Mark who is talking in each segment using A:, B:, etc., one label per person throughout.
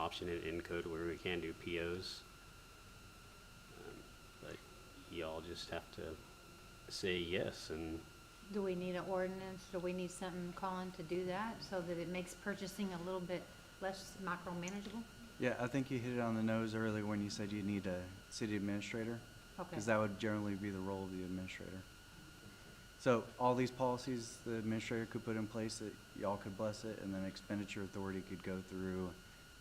A: option in, in code where we can do POs. Um, But y'all just have to say yes and
B: Do we need an ordinance? Do we need something calling to do that so that it makes purchasing a little bit less micromanageable?
C: Yeah, I think you hit it on the nose earlier when you said you need a city administrator,
B: Okay.
C: because that would generally be the role of the administrator. So all these policies the administrator could put in place that y'all could bless it, and then expenditure authority could go through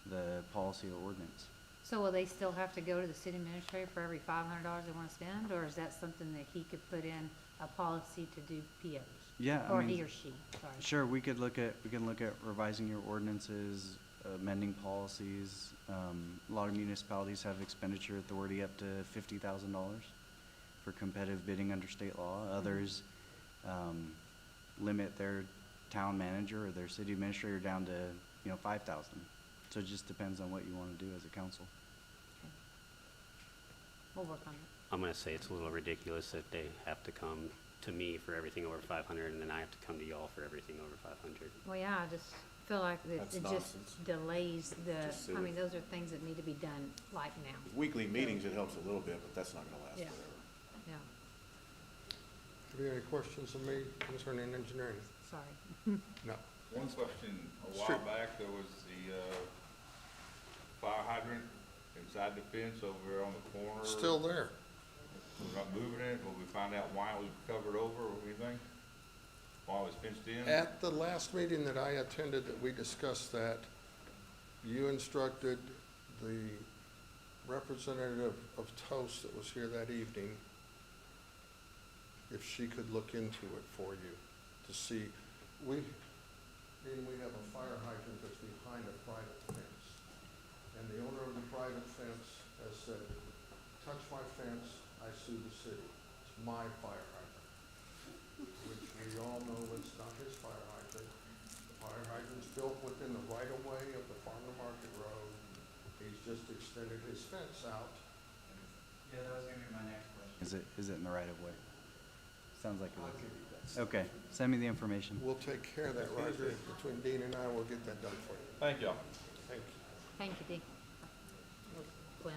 C: the policy or ordinance.
B: So will they still have to go to the city administrator for every five hundred dollars they wanna spend, or is that something that he could put in a policy to do POs?
C: Yeah, I
B: Or
C: mean-
B: he or she, sorry.
C: Sure, we could look at, we can look at revising your ordinances, amending policies. Um, a lot of municipalities have expenditure authority up to fifty thousand dollars for competitive bidding under state law. Others, um, limit their town manager or their city administrator down to, you know, five thousand. So it just depends on what you wanna do as a council.
B: Okay. We'll work on it.
A: I'm gonna say it's a little ridiculous that they have to come to me for everything over five hundred and then I have to come to y'all for everything over five hundred.
B: Well, yeah, I just feel like that
D: That's
B: it
D: nonsense.
B: just delays
D: Just
B: the, I
D: silly.
B: mean, those are things that need to be done like now,
D: Weekly meetings, it helps a little bit, but that's not gonna last
B: Yeah.
D: forever.
B: yeah,
E: Have you any questions of me concerning engineering?
B: sorry.
E: No.
F: One question, a
E: Sure.
F: while back, there was the, uh, fire hydrant inside the fence over on the corner.
E: Still there.
F: We're not moving it, will we find out why it was covered over or anything? Why it was fenced in?
E: At the last meeting that I attended that we discussed that, you instructed the representative of Toast that was here that evening if she could look into it for you to see, we, Dean, we have a fire hydrant that's behind a private fence. And the owner of the private fence has said, touch my fence, I sue the city. It's my fire hydrant. Which we all know it's not his fire hydrant. The fire hydrant's built within the right of way of the Farmer Market Road. He's just extended his fence out.
G: Yeah, that was gonna be my next question.
C: Is it, is it in the right of way? Sounds like
G: I'll
C: it
G: give you that.
C: is. Okay, send me the information.
E: We'll take care of that right there between Dean and I. We'll get that done for you.
F: Thank y'all.
E: Thank you.
B: Thank you, Dee. Glenn?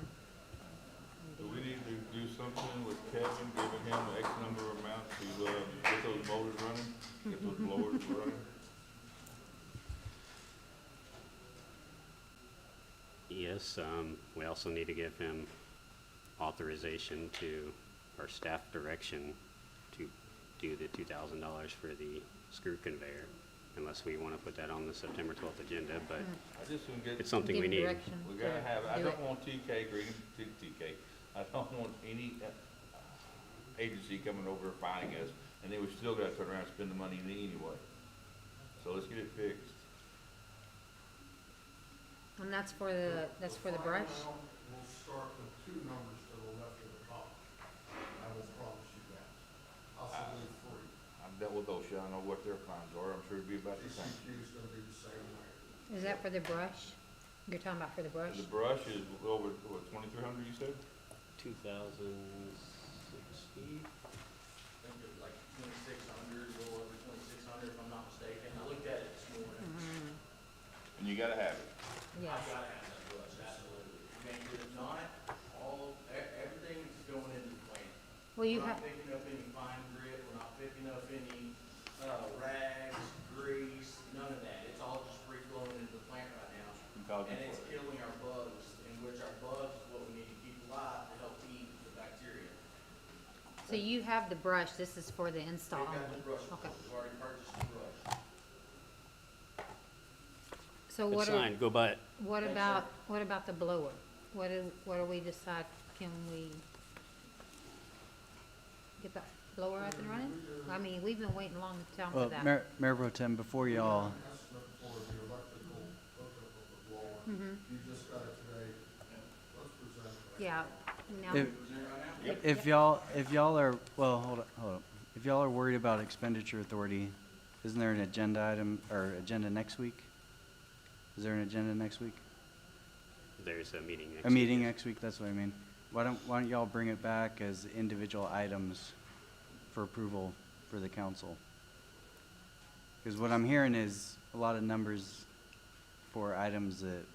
F: Do we need to do something with Kevin, giving him X number of amount to, uh, get those motors running, get those blowers running?
A: Yes, um, we also need to give him authorization to, or staff direction to do the two thousand dollars for the screw conveyor. Unless we wanna put that on the September twelfth agenda, but
F: I just don't get.
A: it's something we
B: Give
A: need.
B: direction
F: We
B: to
F: gotta have, I
B: do
F: don't
B: it.
F: want TK Green, T- TK, I don't want any uh, agency coming over and finding us, and then we still gotta turn around and spend the money anyway. So let's get it fixed.
B: And that's for the, Uh, that's for the brush?
E: We'll start with two numbers to the left of the column. I will promise you that. Possibly three.
F: I've dealt with OSHA, I know what their fines are, I'm sure it'd be about the same.
E: DCQ is gonna be the same way.
B: Is that for the brush? You're talking about for the brush?
F: The brush is over, what, twenty-three hundred, you said?
A: Two thousand sixty?
G: I think it was like twenty-six hundred, a little over twenty-six hundred, if I'm not mistaken. I looked at it this morning.
F: And you gotta have
B: Mm-hmm,
F: it.
B: Yes.
G: I've gotta have that brush, absolutely. I mean, 'cause if not, all, e- everything is going into the plant.
B: Well, you
G: We're
B: have,
G: not picking up any fine grit, we're not picking up any, uh, rags, grease, none of that. It's all just free flowing into the plant right now.
F: I'm talking
G: And it's
F: for it.
G: killing our bugs, in which our bugs is what we need to keep alive to help feed the bacteria.
B: so you have the brush, this is for the install
G: We've
B: only?
G: got the brush,
B: Okay.
G: we've already purchased the brush.
B: So
A: Good
B: what are,
A: sign, go buy it.
B: what
G: Thanks,
B: about,
G: sir.
B: what about the blower? What do, what do we decide, can we get that blower up and running? I mean, we've been waiting a long time for
C: Well,
B: that.
C: Mayor, Mayor Pro Tem, before y'all,
E: estimate for the electrical hookup of the blower. You just got it today. Let's present it.
B: Yeah, now,
C: if, if y'all, if y'all are, well, hold up, hold up. If y'all are worried about expenditure authority, isn't there an agenda item, or agenda next week? Is there an agenda next week?
A: There's a meeting next week.
C: A meeting next week, that's what I mean. Why don't, why don't y'all bring it back as individual items for approval for the council? Because what I'm hearing is a lot of numbers for items that